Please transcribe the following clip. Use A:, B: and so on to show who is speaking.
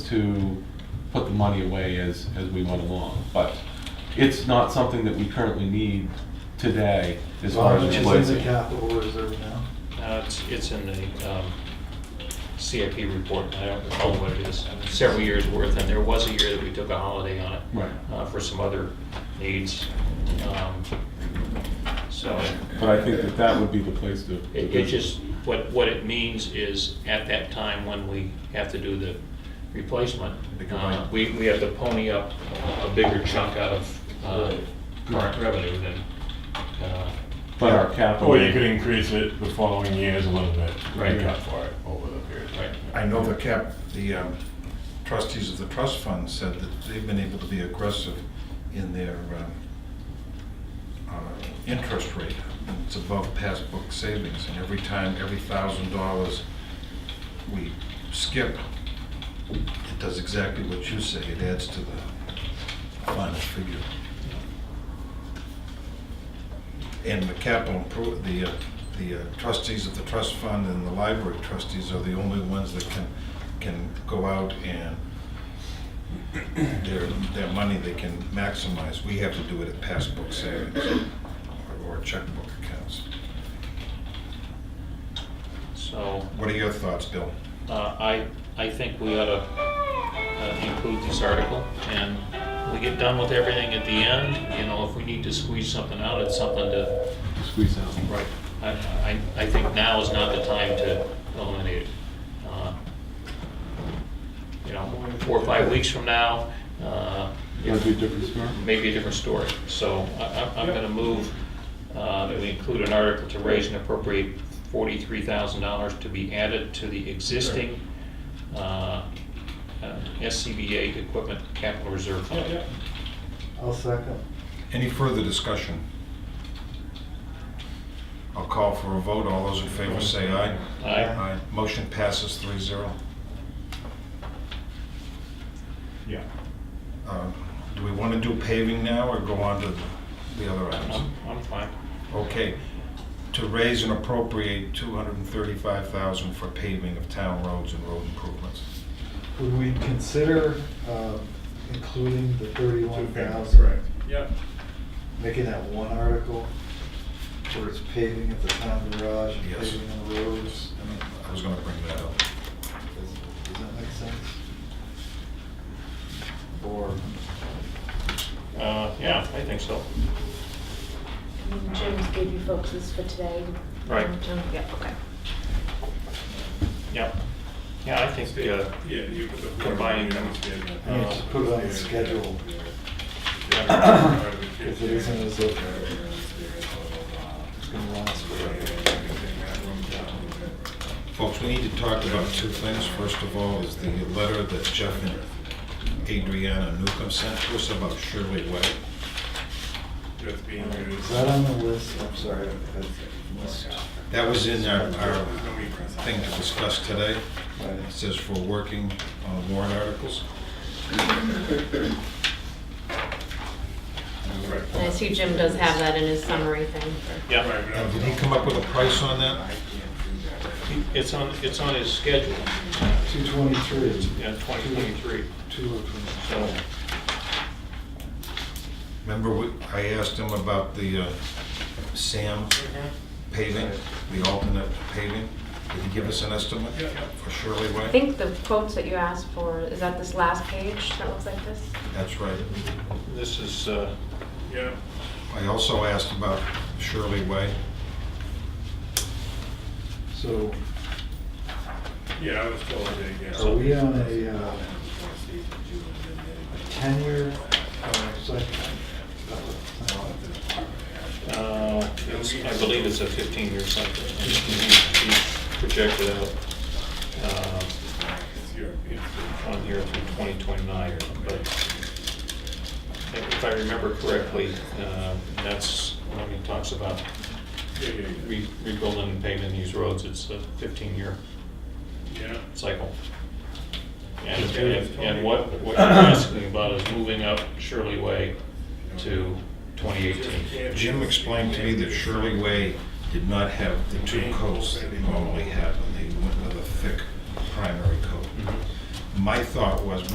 A: to put the money away as, as we went along. But it's not something that we currently need today as
B: How
A: far as
B: much is in the
A: replacing.
B: capital reserve now?
C: Uh, It's it's in the um, CIP report, I don't recall what it is, several years' worth, and there was a year that we took a holiday on it.
A: Right.
C: uh, For some other needs. Um, So
A: But I think that that would be the place to.
C: it it just, what, what it means is at that time when we have to do the replacement,
D: The combined.
C: uh, we, we have to pony up a bigger chunk out of uh, current revenue than, uh,
A: But our capital.
E: Or Oh, you could increase it the following years a little bit. to
C: Right.
E: make up for it over the period.
C: Right.
D: I know the cap, the um, trustees of the trust fund said that they've been able to be aggressive in their um, uh, interest rate. It's above past book savings, and every time, every thousand dollars we skip, it does exactly what you say, it adds to the final figure. And the capital improve, the, uh, the uh, trustees of the trust fund and the library trustees are the only ones that can, can go out and their, their money they can maximize. We have to do it at past book savings or- or checkbook accounts.
C: so.
D: What are your thoughts, Bill?
C: Uh, I, I think we ought to include this article, and we get done with everything at the end, you know, if we need to squeeze something out, it's something to,
A: Squeeze out.
C: right, I, I, I think now is not the time to eliminate it. Uh, You know, four or five weeks from now, uh,
A: That'd be a different story.
C: maybe a different story. So I- I- I'm going to move uh, that we include an article to raise and appropriate $43,000 to be added to the existing uh, uh, SCBA Equipment Capital Reserve Fund.
B: I'll second.
D: Any further discussion? I'll call for a vote. All those in favor say aye.
C: Aye.
D: Aye. Motion passes three zero.
E: Yeah.
D: Um, Do we want to do paving now or go on to the- the other items?
C: I'm I'm fine.
D: Okay. To raise and appropriate 235000 for paving of town roads and road improvements.
B: Would we consider um, including the
E: Two
B: thirty-one
E: families,
B: thousand?
E: correct. Yep.
B: Making that one article where it's paving at the town garage and
D: Yes.
B: paving on the roads? I mean,
D: I was going to bring that up.
B: does does that make sense? Or,
C: Uh, Yeah, I think so.
F: And James gave you folks this for today. Um,
C: Right.
F: Jim- Yeah, okay.
C: Yep. Yeah, I think, uh,
E: Yeah, you put the.
C: Combining them.
B: I mean, just put it on the schedule, if it isn't as if it's gonna last forever.
D: Folks, we need to talk about two things. First of all, is the letter that Jeff and Adriana Newcomb sent to us about Shirley Way.
E: Just being
B: Is
E: used.
B: that on the list? I'm sorry, I missed.
D: That was in our, our
E: Don't be pressed.
D: thing to discuss today. It says for working on warrant articles.
E: Right.
F: And I see Jim does have that in his summary thing. for-
C: yeah,
E: Right, but I
D: And
E: was-
D: did he come up with a price on that?
C: it's on, it's on his schedule,
B: Two twenty-three.
C: yeah, 2023,
B: Two of them.
C: so.
D: Remember, we- I asked him about the uh, Sam paving, the alternate paving? Did he give us an estimate
E: Yeah, yeah.
D: for Shirley Way?
F: I think the quotes that you asked for, is that this last page that looks like this?
D: That's right.
C: This is, uh,
E: Yeah.
D: I also asked about Shirley Way.
B: So
E: Yeah, I was told that, yeah.
B: are we on a, uh, a tenure, uh, cycle?
C: Uh, it's- I believe it's a 15-year cycle. He- he Projected out uh,
E: It's your- it's
C: on here through 2029, but if I remember correctly, uh, that's, when he talks about
E: your- yeah, yeah,
C: re- rebuilding and paving these roads, it's a 15-year
E: Yeah. Yeah.
C: cycle. And and- and what what you're asking about is moving up Shirley Way to 2018.
D: Jim explained to me that Shirley Way did not have the two coats that they normally have, and they went with a thick primary coat.
C: Mhm.
D: my thought was,